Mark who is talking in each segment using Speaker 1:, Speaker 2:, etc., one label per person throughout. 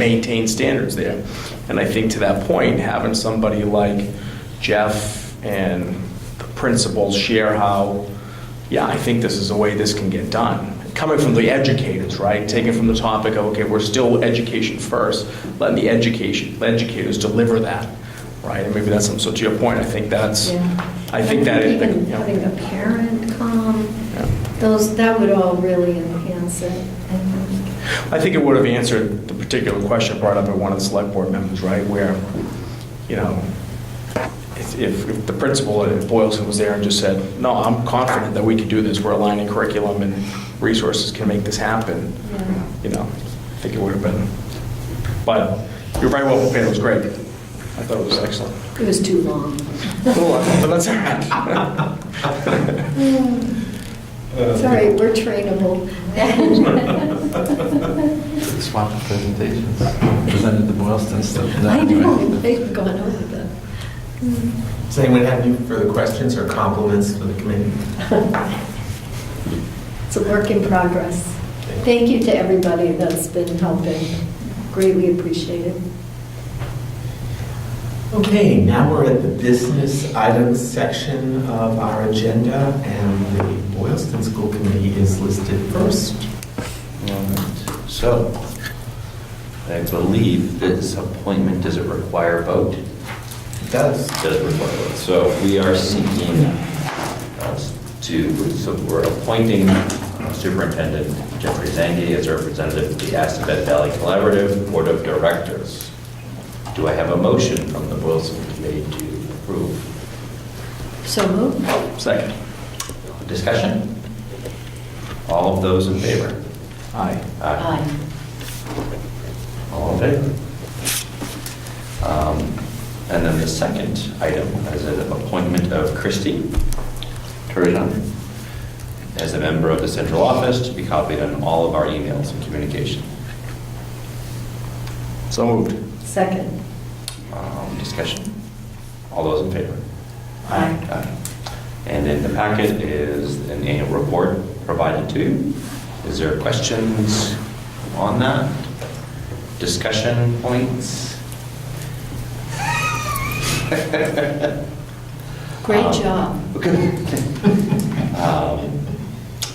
Speaker 1: maintain standards there. And I think to that point, having somebody like Jeff and the principals share how, yeah, I think this is the way this can get done. Coming from the educators, right? Taking from the topic of, okay, we're still education first, letting the education, the educators deliver that, right? And maybe that's, so to your point, I think that's, I think that. it-
Speaker 2: even
Speaker 1: yeah.
Speaker 2: Having a parent come,
Speaker 1: Yeah.
Speaker 2: those, that would all really enhance it. I think.
Speaker 1: I think it would have answered the particular question brought up by one of the select board members, right, where, you know, if- if if the principal at Boylston was there and just said, no, I'm confident that we can do this, we're aligning curriculum and resources can make this happen,
Speaker 2: Yeah.
Speaker 1: you know, I think it would have been, but you're very well prepared, it was great. I thought it was excellent.
Speaker 2: It was too long.
Speaker 1: Well, But that's all right.
Speaker 2: Sorry, we're trainable.
Speaker 3: Swap the presentations, presented the Boylston stuff.
Speaker 2: I know, they've gone over that.
Speaker 4: Does anyone have any further questions or compliments for the committee?
Speaker 2: It's a work in progress. Thank you to everybody that's been helping. Greatly appreciated.
Speaker 4: Okay, now we're at the business items section of our agenda, and the Boylston School Committee is listed first.
Speaker 3: So, I believe this appointment, does it require a vote?
Speaker 4: It does.
Speaker 3: Does require a vote. So we are seeking uh, to, so we're appointing uh, Superintendent Jeffrey Zangi as representative of the Assabet Valley Collaborative Board of Directors. Do I have a motion from the Boylston Committee to approve?
Speaker 2: So moved.
Speaker 1: Second.
Speaker 3: Discussion? All of those in favor?
Speaker 1: Aye.
Speaker 2: Aye.
Speaker 3: All in favor? Um, And then the second item is an appointment of Christie Turgeon as a member of the central office to be copied on all of our emails and communication.
Speaker 1: So moved.
Speaker 2: Second.
Speaker 3: Um, Discussion? All those in favor?
Speaker 2: Aye.
Speaker 3: Aye. And in the packet is an annual report provided to you. Is there questions on that? Discussion points?
Speaker 2: Great
Speaker 3: Um,
Speaker 2: job.
Speaker 3: Um,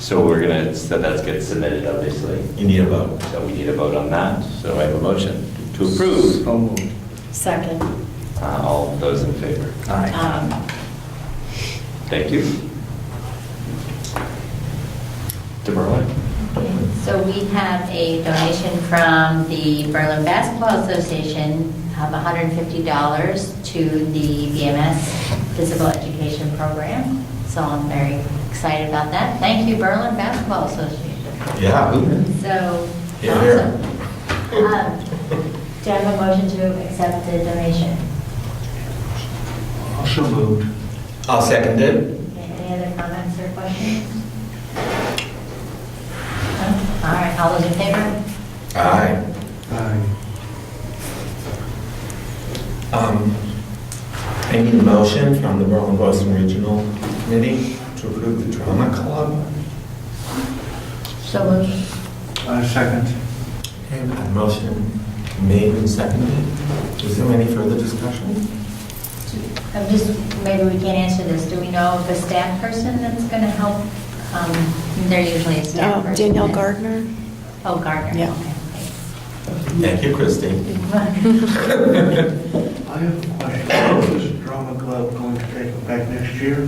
Speaker 3: So we're gonna, so that gets submitted, obviously.
Speaker 4: You need a vote.
Speaker 3: So we need a vote on that. So I have a motion to approve.
Speaker 1: So moved.
Speaker 2: Second.
Speaker 3: Uh, All those in favor?
Speaker 1: Aye.
Speaker 5: Um,
Speaker 2: Aye.
Speaker 3: Thank you. DeBerlin?
Speaker 5: So we have a donation from the Berlin Basketball Association of $150 to the BMS Physical Education Program. So I'm very excited about that. Thank you, Berlin Basketball Association.
Speaker 4: Yeah. who-
Speaker 5: So,
Speaker 4: Yeah.
Speaker 5: awesome. Um, Do I have a motion to accept the donation?
Speaker 3: So moved.
Speaker 4: I'll second it.
Speaker 5: Any other comments or questions? No? All right, all those in favor?
Speaker 4: Aye. Um, I need a motion from the Berlin Boylston Regional Committee to approve the drama club.
Speaker 5: So moved.
Speaker 6: Uh,
Speaker 4: And a motion made and seconded. Is there any further discussion?
Speaker 5: I'm just, maybe we can't answer this. Do we know the staff person that's going to help? Um, They're usually a staff
Speaker 7: Uh,
Speaker 5: person.
Speaker 7: Danielle
Speaker 5: that-
Speaker 7: Gardner.
Speaker 5: Oh, Gardner.
Speaker 7: Yeah.
Speaker 4: Thank you, Christie.
Speaker 5: okay.
Speaker 6: I have a question. Is the drama club going to take it back next year?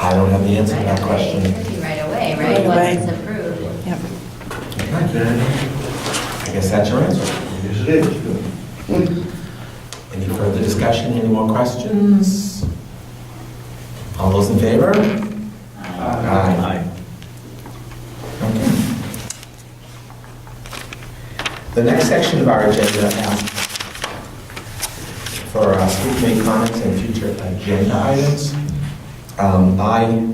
Speaker 4: I don't have the answer to
Speaker 5: Right
Speaker 4: that
Speaker 5: away,
Speaker 4: question.
Speaker 5: It could be right away, right?
Speaker 7: Right away.
Speaker 5: Once it's approved.
Speaker 7: Yep.
Speaker 4: I guess that's your answer.
Speaker 6: Yes, it is.
Speaker 4: Any further discussion, any more questions? All those in favor? Aye. Okay. The next section of our agenda asks for our school committee comments and future agenda items. Um, I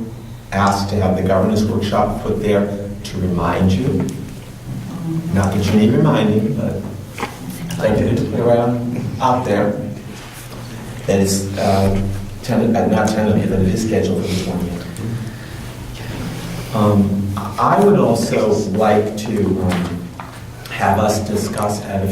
Speaker 4: asked to have the governance workshop put there to remind you. Not that you need reminding, but I did it around out there. That is, uh, ten, uh, not tentative, but it is scheduled for the 20th. Um, I would also like to um, have us discuss at a